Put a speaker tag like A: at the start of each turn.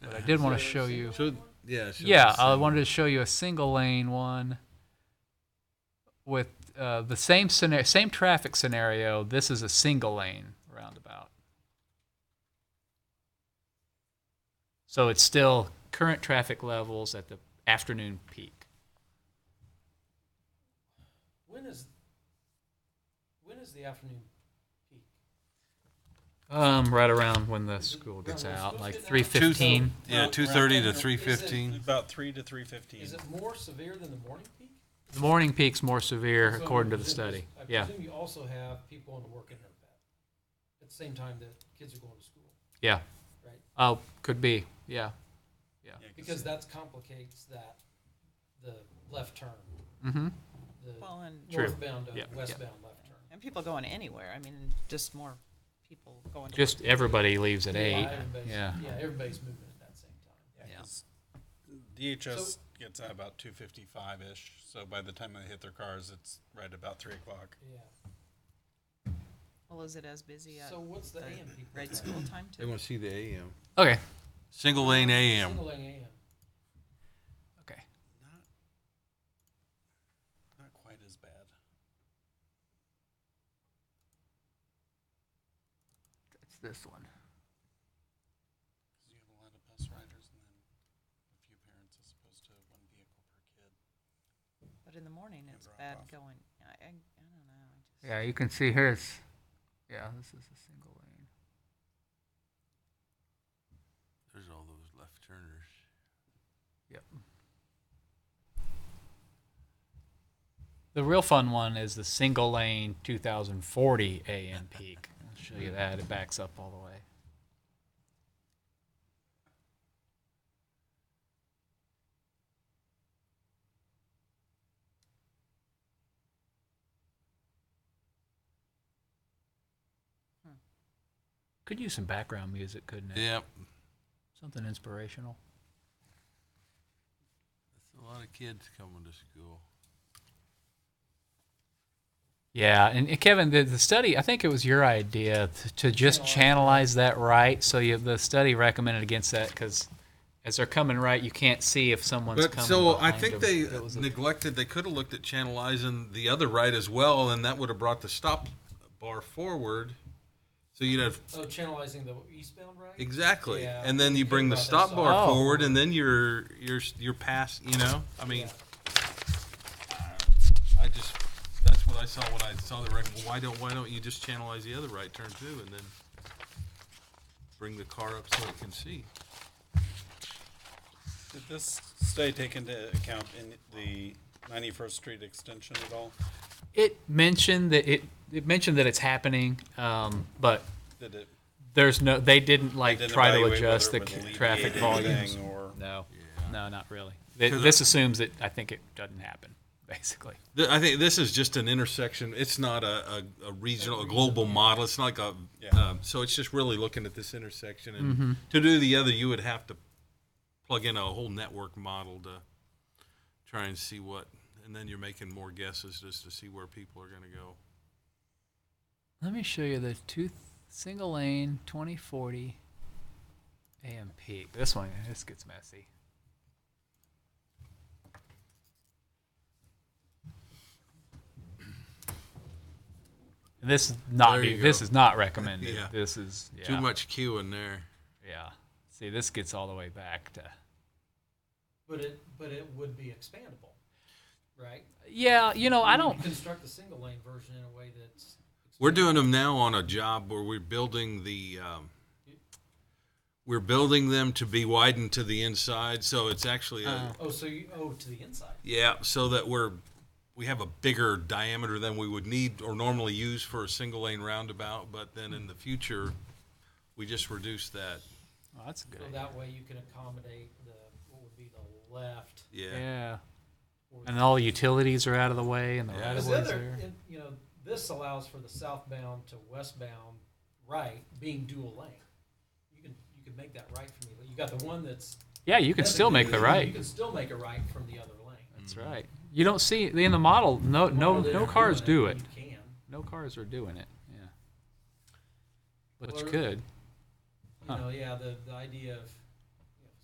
A: I did want to show you.
B: So, yeah. so
A: Yeah,
B: it's,
A: I
B: um,
A: wanted to show you a single lane one with uh, the same scenario, same traffic scenario. This is a single lane roundabout. So it's still current traffic levels at the afternoon peak.
C: When is when is the afternoon peak?
A: Um, right around when the school gets out, like three
B: two-
A: fifteen.
B: Yeah, two thirty to three fifteen.
D: About three to three fifteen.
C: Is it more severe than the morning peak?
A: The morning peak's more severe
C: So
A: according to the
C: is it-
A: study.
C: I
A: Yeah,
C: presume you also have people on the work internet at the same time that kids are going to school,
A: yeah.
C: right?
A: Oh, could be. Yeah.
C: Because that complicates that, the left turn,
A: Mm-hmm.
C: the
E: Well, and,
A: True.
C: northbound
A: Yeah,
C: to
A: yeah.
C: westbound left turn.
E: and people going anywhere, I mean, just more people going to.
A: Just everybody leaves at eight.
C: Yeah, everybody's-
A: Yeah.
C: Yeah, everybody's moving at that same time.
A: Yeah.
D: DHS gets out about two fifty-five-ish, so by the time they hit their cars, it's right about three o'clock.
C: Yeah.
E: Well, is it as busy at
C: So what's the
E: the
C: AM peak?
E: grade
C: look like?
E: school time
B: They
E: too?
B: want to see the AM.
A: Okay.
B: Single lane AM.
C: Single lane AM.
A: Okay.
D: Not quite as bad.
A: It's this one.
D: 'Cause you have a lot of bus riders and then a few parents as opposed to one vehicle per kid.
E: But in the morning, it's
D: Drop
E: bad
D: off.
E: going, I, I, I don't know, I just.
A: Yeah, you can see here it's. Yeah, this is a single lane.
B: There's all those left turners.
A: Yep. The real fun one is the single lane 2040 AM peak. I'll show you that. It backs up all the way. Could use some background music, couldn't it?
B: Yep.
A: Something inspirational.
B: That's a lot of kids coming to school.
A: Yeah, and uh, Kevin, the, the study, I think it was your idea to, to just channelize that right. So you, the study recommended against that because as they're coming right, you can't see if someone's
B: But
A: coming.
B: so I
A: behind
B: think
A: them.
B: they
A: That was a-
B: neglected. They could have looked at channelizing the other right as well, and that would have brought the stop bar forward. So you'd have
C: Oh, channelizing the eastbound right?
B: exactly,
C: Yeah.
B: and then you bring the
C: Could've
B: stop
C: brought that
B: bar
A: stop. Oh.
B: forward, and then you're you're you're past. You know, I mean, I just that's what I saw when I saw the right. Well, why don't why don't you just channelize the other right turn too, and then bring the car up so it can see?
D: Did this study take into account in the ninety-first street extension at all?
A: it mentioned that it, it mentioned that it's happening, um, but
D: Did it?
A: there's no they didn't like
D: did it
A: try to
D: evaluate
A: adjust the
D: whether it would
A: c-
D: alleviate
A: traffic volumes.
D: anything Or,
A: No,
B: Yeah.
A: no, not really. Th-
B: So the-
A: this assumes that I think it doesn't happen, basically.
B: Th- I think this is just an intersection. It's not a, a, a regional, a global model. It's not like a,
D: Yeah.
B: um, so it's just really looking at this intersection. And to do the other, you would have to plug in a whole network model to try and see what, and then you're making more guesses just to see where people are going to go.
A: Let me show you the two single lane 2040 AM peak. This one, this gets messy. And This is not
B: There
A: be-
B: you
A: this
B: go.
A: is not recommended.
B: Yeah.
A: This is yeah,
B: Too much queue in there.
A: Yeah. See, this gets all the way back to
C: But it, but it would be expandable, right?
A: Yeah, you know, Oh, I
C: You
A: don't
C: Construct the single lane version in a way that's.
B: We're doing them now on a job where we're building the, um, we're building them to be widened to the inside. So it's actually a,
C: Oh, so you, oh, to the inside.
B: Yeah, so that we're we have a bigger diameter than we would need or normally use for a single lane roundabout, but then in the future we just reduce that.
A: oh, that's a good.
C: So
A: idea.
C: that way you can accommodate the, what would be the left.
B: Yeah.
A: Yeah.
C: or
B: uh,
A: And all utilities are out of the way and the
B: Yeah.
A: right
C: Because
A: of
C: the
A: ways
C: other,
A: there.
C: and, you know, this allows for the southbound to westbound right being dual lane. You can, you can make that right from the, you got the one that's.
A: Yeah, you can still make the
C: designated,
A: right.
C: You can still make a right from the other lane.
A: That's right. You don't see in the model. No, no,
C: Well, they're
A: no cars do
C: doing
A: it.
C: You can.
A: No cars are doing it. Yeah, but you
C: Well,
A: could.
C: You
A: Huh.
C: know, yeah, the, the idea of